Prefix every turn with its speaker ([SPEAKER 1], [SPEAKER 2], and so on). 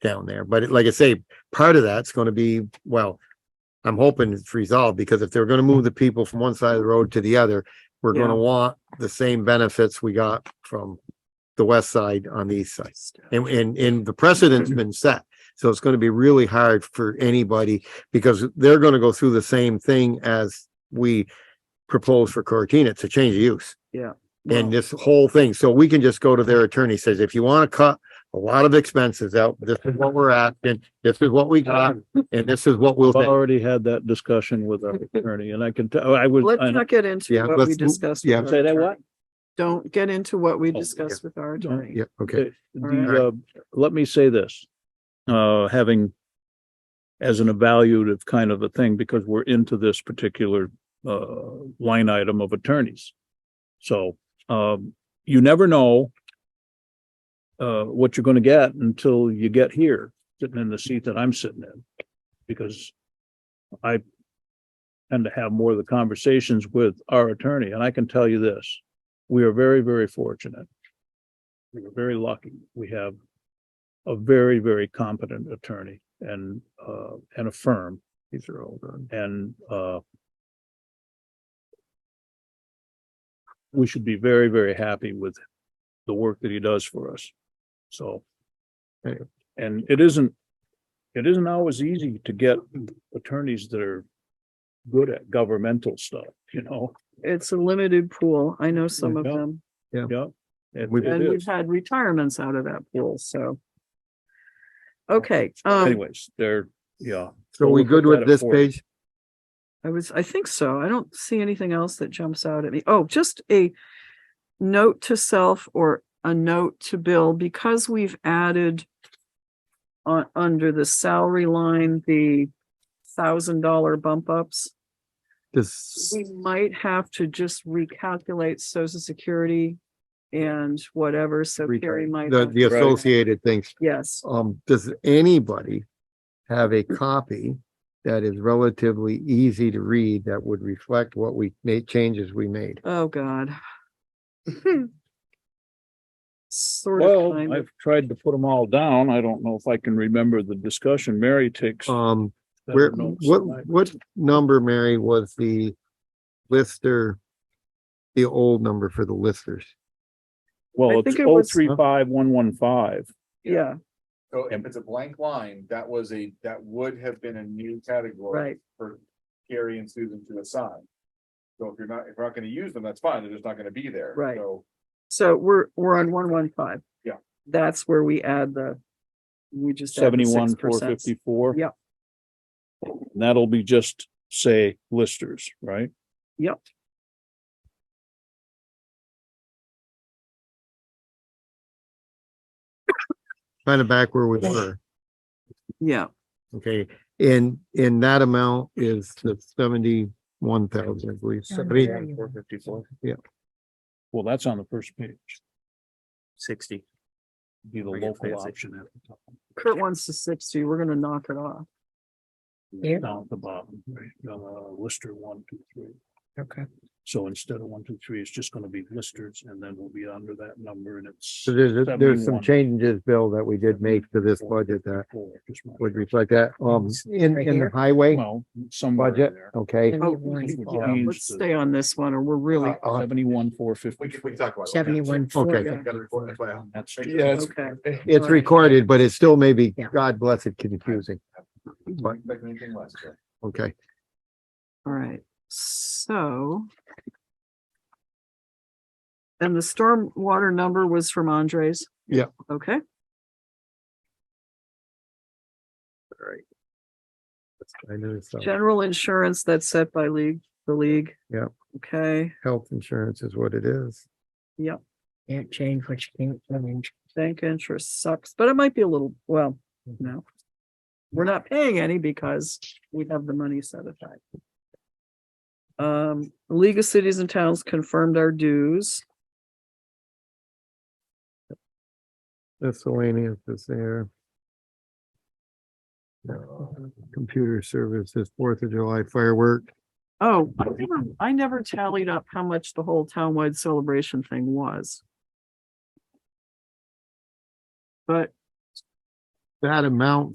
[SPEAKER 1] down there. But it- like I say, part of that's gonna be, well, I'm hoping it's resolved because if they're gonna move the people from one side of the road to the other, we're gonna want the same benefits we got from the west side on the east side. And, and, and the
[SPEAKER 2] Mm-hmm.
[SPEAKER 1] precedent's been set. So it's gonna be really hard for anybody because they're gonna go through the same thing as we proposed for Cortina to change the use and this whole thing. So we can just go to their attorney, says, if you want to cut a lot of expenses out, this is what we're asking, this is what we got, and this is what we'll.
[SPEAKER 3] I've
[SPEAKER 1] pay."
[SPEAKER 3] already had that discussion with our attorney and I can, tell. I was,
[SPEAKER 2] Let's
[SPEAKER 3] I know-
[SPEAKER 2] not get
[SPEAKER 1] Yeah,
[SPEAKER 2] into what we
[SPEAKER 1] let's move-
[SPEAKER 2] discussed.
[SPEAKER 1] yeah.
[SPEAKER 2] with our
[SPEAKER 3] Say that what?
[SPEAKER 2] attorney. Don't get into what we
[SPEAKER 3] Oh,
[SPEAKER 2] discussed with our
[SPEAKER 3] Don't,
[SPEAKER 2] attorney.
[SPEAKER 1] Yeah, okay.
[SPEAKER 3] the, uh, let me say this, uh, having as an evaluative kind of a thing, because we're into this particular, uh, line item of attorneys. So, um, you never know uh, what you're gonna get until you get here, sitting in the seat that I'm sitting in. Because I tend to have more of the conversations with our attorney, and I can tell you this, we are very, very fortunate we are very lucky. We have a very, very competent attorney and, uh, and a firm. These are all done. And, uh, we should be very, very happy with the work that he does for us. So.
[SPEAKER 1] Anyway.
[SPEAKER 3] And it isn't, it isn't always easy to get attorneys that are good at governmental stuff, you know?
[SPEAKER 2] It's a limited pool. I know some of
[SPEAKER 3] Yeah.
[SPEAKER 2] them,
[SPEAKER 3] Yeah. It-
[SPEAKER 1] We've-
[SPEAKER 3] it
[SPEAKER 2] and we've
[SPEAKER 3] is.
[SPEAKER 2] had retirements out of that pool, so. Okay, um,
[SPEAKER 3] Anyways, they're, yeah.
[SPEAKER 1] So we good with this page?
[SPEAKER 2] I was, I think so. I don't see anything else that jumps out at me. Oh, just a note to self or a note to Bill, because we've added on, under the salary line, the thousand dollar bump ups.
[SPEAKER 1] This,
[SPEAKER 2] We might have to just recalculate social security and whatever, so Carrie might.
[SPEAKER 1] the,
[SPEAKER 2] have-
[SPEAKER 1] the associated things.
[SPEAKER 2] Yes,
[SPEAKER 1] Um, does anybody have a copy that is relatively easy to read that would reflect what we made, changes we made?
[SPEAKER 2] oh, God. Sort of,
[SPEAKER 3] Well,
[SPEAKER 2] kind of.
[SPEAKER 3] I've tried to put them all down. I don't know if I can remember the discussion Mary takes.
[SPEAKER 1] Um,
[SPEAKER 3] better
[SPEAKER 1] where,
[SPEAKER 3] notes than I-
[SPEAKER 1] what, what number, Mary, was the lister? The old number for the listers?
[SPEAKER 2] I
[SPEAKER 3] Well, it's
[SPEAKER 2] think it was-
[SPEAKER 3] 035115.
[SPEAKER 2] yeah,
[SPEAKER 4] So if it's a blank line, that was a, that would have been a new category
[SPEAKER 2] right,
[SPEAKER 4] for Gary and Susan to assign. So if you're not, if we're not gonna use them, that's fine, they're just not gonna be there.
[SPEAKER 2] Right.
[SPEAKER 4] So
[SPEAKER 2] so we're, we're on one, one, five.
[SPEAKER 4] Yeah.
[SPEAKER 2] That's where we add the, we just. add the
[SPEAKER 3] seventy-one, four
[SPEAKER 2] 6%.
[SPEAKER 3] fifty-four.
[SPEAKER 2] Yep.
[SPEAKER 3] That'll be just, say, listers, right?
[SPEAKER 2] Yep,
[SPEAKER 1] kind of back where we were,
[SPEAKER 2] yeah,
[SPEAKER 1] okay? And, and that amount is the seventy-one thousand, I believe, seventy,
[SPEAKER 4] four fifty-four.
[SPEAKER 3] Well, that's on the first page.
[SPEAKER 5] sixty.
[SPEAKER 3] Be the
[SPEAKER 5] Forget
[SPEAKER 3] local
[SPEAKER 5] fancy.
[SPEAKER 3] option at the top.
[SPEAKER 2] Kurt wants the sixty, we're gonna knock it off.
[SPEAKER 5] Yeah.
[SPEAKER 3] Down at the bottom, right, uh, lister one, two, three.
[SPEAKER 5] Okay.
[SPEAKER 3] So instead of one, two, three, it's just gonna be listers and then we'll be under that number and it's.
[SPEAKER 1] So there's, there's some
[SPEAKER 3] 71.
[SPEAKER 1] changes, Bill, that we did make to this budget that
[SPEAKER 3] Four, just my-
[SPEAKER 1] would reflect that, um, in,
[SPEAKER 5] Right
[SPEAKER 1] in the
[SPEAKER 5] here?
[SPEAKER 1] highway
[SPEAKER 3] Well, somewhere in
[SPEAKER 1] budget,
[SPEAKER 3] there.
[SPEAKER 1] okay?
[SPEAKER 2] Oh,
[SPEAKER 3] Warren's
[SPEAKER 2] yeah,
[SPEAKER 3] changed
[SPEAKER 2] let's
[SPEAKER 3] the-
[SPEAKER 2] stay on this one or we're really,
[SPEAKER 1] Uh,
[SPEAKER 3] Seventy-one, four
[SPEAKER 4] We
[SPEAKER 3] fifty.
[SPEAKER 4] can, we can talk about. it.
[SPEAKER 5] Seventy-one,
[SPEAKER 1] Okay.
[SPEAKER 4] Yeah,
[SPEAKER 5] forty.
[SPEAKER 4] gotta record it as well.
[SPEAKER 3] That's.
[SPEAKER 4] Yeah, it's-
[SPEAKER 2] okay.
[SPEAKER 1] It's recorded, but it still may be,
[SPEAKER 5] Yeah.
[SPEAKER 1] God bless it, confusing,
[SPEAKER 4] Don't expect anything less, yeah.
[SPEAKER 1] okay?
[SPEAKER 2] All right, so. And the storm water number was from Andres?
[SPEAKER 1] Yeah.
[SPEAKER 2] Okay,
[SPEAKER 1] I know it's, uh,
[SPEAKER 2] general insurance that's set by league, the league.
[SPEAKER 1] Yeah.
[SPEAKER 2] Okay,
[SPEAKER 1] health insurance is what it is.
[SPEAKER 5] Can't change what you can't change.
[SPEAKER 2] bank interest sucks, but it might be a little, well,
[SPEAKER 1] Mm-hmm.
[SPEAKER 2] no. We're not paying any because we have the money set aside. Um, League of Cities and Towns confirmed our dues.
[SPEAKER 1] Miscellaneous is there. No, Computer services, Fourth of July firework.
[SPEAKER 2] Oh, I never, I never tallied up how much the whole townwide celebration thing was. But
[SPEAKER 1] that amount